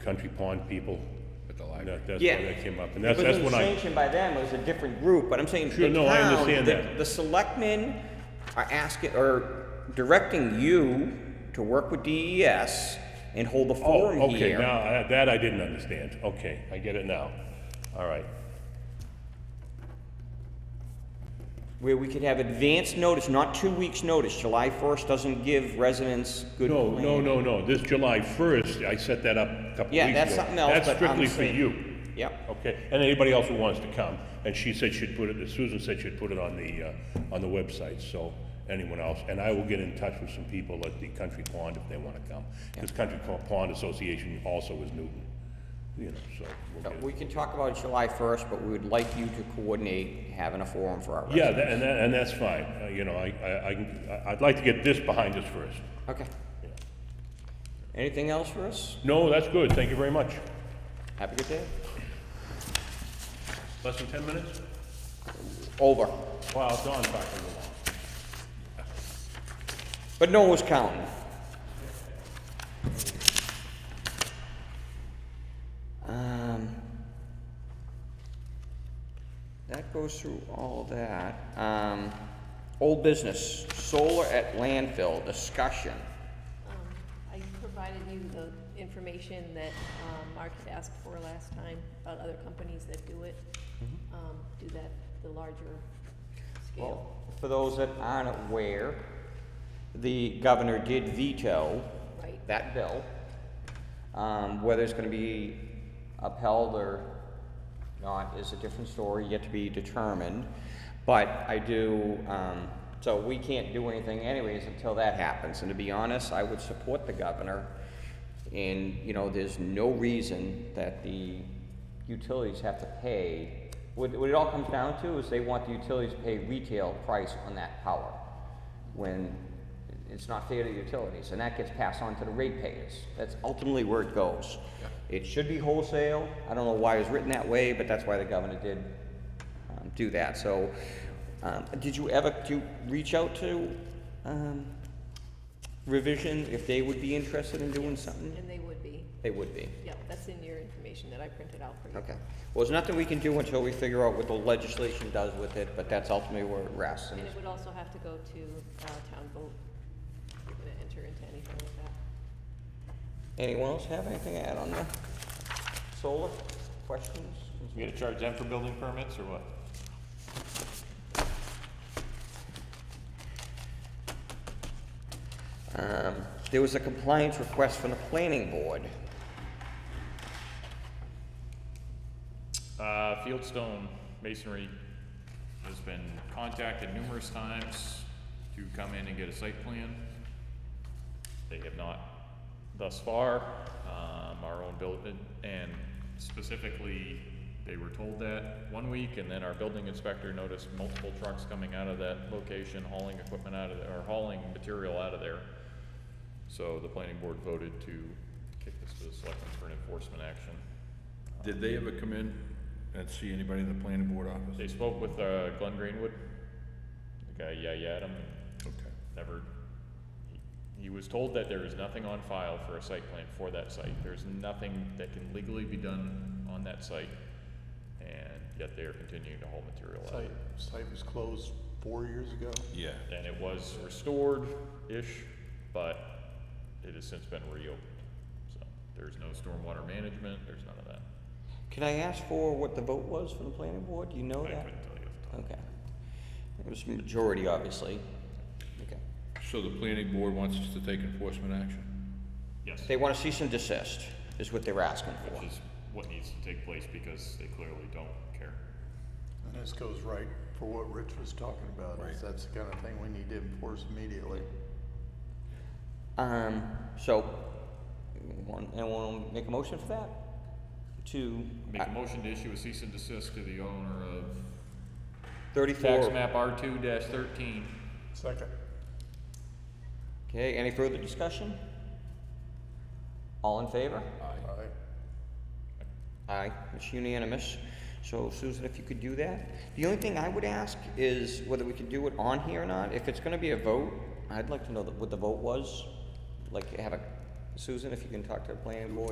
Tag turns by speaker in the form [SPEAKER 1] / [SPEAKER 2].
[SPEAKER 1] Country Pond people.
[SPEAKER 2] At the
[SPEAKER 1] and
[SPEAKER 2] library.
[SPEAKER 1] that- That's
[SPEAKER 3] Yeah.
[SPEAKER 1] where that came up, and that's,
[SPEAKER 3] It
[SPEAKER 1] that's
[SPEAKER 3] wasn't
[SPEAKER 1] when I,
[SPEAKER 3] sanctioned by them, it was a different group, but I'm saying
[SPEAKER 1] Sure,
[SPEAKER 3] the
[SPEAKER 1] no, I
[SPEAKER 3] town,
[SPEAKER 1] understand
[SPEAKER 3] the-
[SPEAKER 1] that.
[SPEAKER 3] The selectmen are asking, or directing you to work with DES and hold a
[SPEAKER 1] oh,
[SPEAKER 3] forum
[SPEAKER 1] okay,
[SPEAKER 3] here.
[SPEAKER 1] now, I- that I didn't understand. Okay, I get it now. All right.
[SPEAKER 3] Where we could have advance notice, not two weeks' notice, July first doesn't give residents good.
[SPEAKER 1] No, no,
[SPEAKER 3] plan.
[SPEAKER 1] no, no, this July first, I set that up a couple weeks ago.
[SPEAKER 3] Yeah, that's something else,
[SPEAKER 1] That's
[SPEAKER 3] but I'm
[SPEAKER 1] strictly for
[SPEAKER 3] saying-
[SPEAKER 1] you.
[SPEAKER 3] Yep,
[SPEAKER 1] Okay, and anybody else who wants to come, and she said she'd put it, Susan said she'd put it on the, uh, on the website, so anyone else, and I will get in touch with some people at the Country Pond if they wanna come. This Country Co- Pond Association also is Newton, you know, so. we'll
[SPEAKER 3] So
[SPEAKER 1] get-
[SPEAKER 3] Uh, we can talk about it July first, but we would like you to coordinate having a forum for our residents.
[SPEAKER 1] Yeah, tha- and that, and that's fine, Uh, you know, I, I, I can- I- I'd like to get this behind us first.
[SPEAKER 3] Okay. Anything else for us?
[SPEAKER 1] No, that's good, thank you very much.
[SPEAKER 3] Have a good day.
[SPEAKER 1] Less than ten minutes?
[SPEAKER 3] Over.
[SPEAKER 1] Wow, Dawn's talking along.
[SPEAKER 3] But no one was counting. Um, that goes through all that. Um, old business, solar at landfill, discussion.
[SPEAKER 4] Um, I provided you the information that um, Mark had asked for last time about other companies that do it, um, do that, the larger
[SPEAKER 3] Well,
[SPEAKER 4] scale.
[SPEAKER 3] for those that aren't aware, the governor did veto
[SPEAKER 4] Right.
[SPEAKER 3] that bill. Um, whether it's gonna be upheld or not is a different story, yet to be determined. But I do, um, so we can't do anything anyways until that happens. And to be honest, I would support the governor. And, you know, there's no reason that the utilities have to pay. What, what it all comes down to is they want the utilities to pay retail price on that power. When it's not fair to the utilities, and that gets passed on to the ratepayers. That's ultimately where it goes. It should be wholesale. I don't know why it was written that way, but that's why the governor did um, do that. So, um, did you ever, do you reach out to um, Revision if they would be interested in doing something?
[SPEAKER 4] And they would be,
[SPEAKER 3] They would be.
[SPEAKER 4] yeah, that's in your information that I printed out for you.
[SPEAKER 3] Okay. Well, there's nothing we can do until we figure out what the legislation does with it, but that's ultimately where it rests. and
[SPEAKER 4] And it would also have to go to uh, town vote, if you're gonna enter into anything with that.
[SPEAKER 3] Anyone else have anything to add on the solar questions?
[SPEAKER 5] You gonna charge them for building permits or what?
[SPEAKER 3] Um, There was a compliance request from the planning board.
[SPEAKER 5] Uh, Fieldstone Masonry has been contacted numerous times to come in and get a site plan. They have not thus far, um, our own building, and specifically, they were told that one week, and then our building inspector noticed multiple trucks coming out of that location, hauling equipment out of, there or hauling material out of there. So the planning board voted to kick this to the selectmen for an enforcement action.
[SPEAKER 2] Did they ever come in and see anybody in the planning board office?
[SPEAKER 5] They spoke with uh, Glenn Greenwood, the guy, yeah, yeah, Adam,
[SPEAKER 2] Okay.
[SPEAKER 5] never, he- he was told that there is nothing on file for a site plan for that site. There's nothing that can legally be done on that site, and yet they are continuing to haul material out.
[SPEAKER 6] Site, site was closed four years ago.
[SPEAKER 2] Yeah.
[SPEAKER 5] And it was restored-ish, but it has since been reopened. So there's no stormwater management, there's none of that.
[SPEAKER 3] Can I ask for what the vote was from the planning board? Do you know
[SPEAKER 5] I
[SPEAKER 3] that?
[SPEAKER 5] couldn't tell you. off the top.
[SPEAKER 3] Okay. It was majority, obviously. Okay.
[SPEAKER 2] So the planning board wants us to take enforcement action?
[SPEAKER 5] Yes.
[SPEAKER 3] They want to cease and desist, is what they're asking for.
[SPEAKER 5] Which is what needs to take place because they clearly don't care.
[SPEAKER 6] And this goes right for what Rich was talking about, is that's the kind of thing we need to enforce immediately.
[SPEAKER 3] Um, so, want- anyone wanna make a motion for that? uh, To
[SPEAKER 5] Make a motion to issue a cease and desist to the owner of tax
[SPEAKER 3] thirty-four?
[SPEAKER 5] map R two thirteen.
[SPEAKER 6] Second.
[SPEAKER 3] Okay, any further discussion? All in favor?
[SPEAKER 6] Aye.
[SPEAKER 3] Aye, it's unanimous. So Susan, if you could do that. The only thing I would ask is whether we could do it on here or not. If it's gonna be a vote, I'd like to know that- what the vote was. Like, have a, Susan, if you can talk to the planning board,